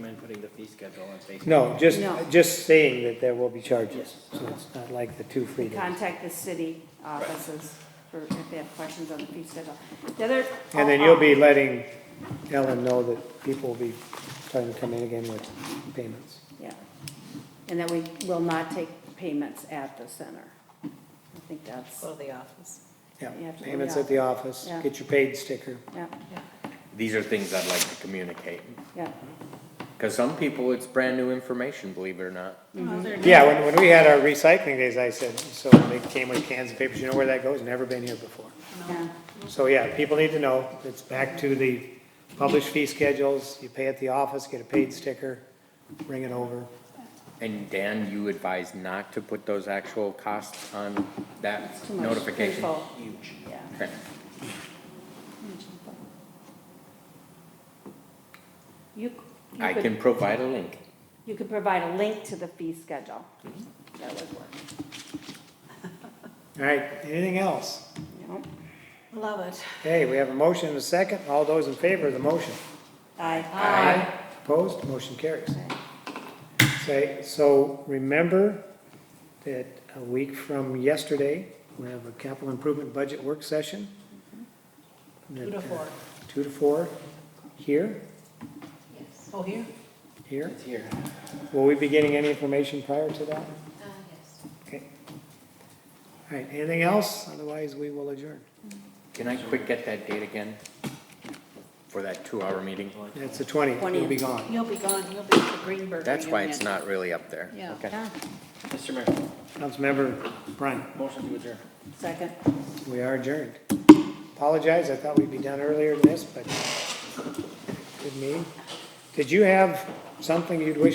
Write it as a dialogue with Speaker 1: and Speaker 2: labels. Speaker 1: putting the fee schedule in Facebook.
Speaker 2: No, just,
Speaker 3: No.
Speaker 2: just saying that there will be charges, so it's not like the two free days.
Speaker 3: Contact the city offices for, if they have questions on the fee schedule. The other. Oh,
Speaker 2: And then you'll be letting Ellen know that people will be trying to come in again with payments.
Speaker 3: oh, Yeah. And that we will not take payments at the center. I think that's,
Speaker 4: Go to the office.
Speaker 2: Yeah,
Speaker 3: You have to-
Speaker 2: payments at the office,
Speaker 3: Yeah.
Speaker 2: get your paid sticker.
Speaker 3: yeah,
Speaker 1: These are things I'd like to communicate,
Speaker 3: yeah.
Speaker 1: because some people, it's brand new information, believe it or not.
Speaker 4: Oh,
Speaker 2: Yeah, when, when we had our recycling days, I said, so they came with cans and papers, you know where that goes? Never been here before.
Speaker 3: Yeah,
Speaker 2: So yeah, people need to know, it's back to the published fee schedules, you pay at the office, get a paid sticker, bring it over.
Speaker 1: And Dan, you advise not to put those actual costs on that
Speaker 3: It's too much
Speaker 1: notification?
Speaker 3: info.
Speaker 1: Huge.
Speaker 3: yeah.
Speaker 1: Okay.
Speaker 3: You,
Speaker 1: I
Speaker 3: you
Speaker 1: can
Speaker 3: could,
Speaker 1: provide a link.
Speaker 3: you could provide a link to the fee schedule.
Speaker 1: Mm-hmm.
Speaker 3: That would work.
Speaker 2: All right, anything else?
Speaker 3: No?
Speaker 4: Love it.
Speaker 2: Okay, we have a motion and a second, all those in favor of the motion?
Speaker 3: Aye.
Speaker 2: Opposed, motion carries. Say, so remember that a week from yesterday, we have a capital improvement budget work session. uh,
Speaker 4: Two to four.
Speaker 2: Two to four, here,
Speaker 4: Oh, here?
Speaker 2: here.
Speaker 1: here.
Speaker 2: Will we be getting any information prior to that?
Speaker 5: Uh, yes.
Speaker 2: Okay. All right, anything else? Otherwise, we will adjourn.
Speaker 1: Can I quick get that date again? For that two-hour meeting?
Speaker 2: It's the 20th, you'll be gone.
Speaker 4: You'll be gone, you'll be at the Greenberg
Speaker 1: That's why it's
Speaker 4: reunion.
Speaker 1: not really up there.
Speaker 4: Yeah.
Speaker 1: Okay.
Speaker 3: Yeah.
Speaker 6: Mr. Mayor,
Speaker 2: Councilmember Bryan,
Speaker 6: motion to adjourn.
Speaker 3: Second.
Speaker 2: we are adjourned. Apologize, I thought we'd be done earlier than this, but good meeting. Did you have something you'd wish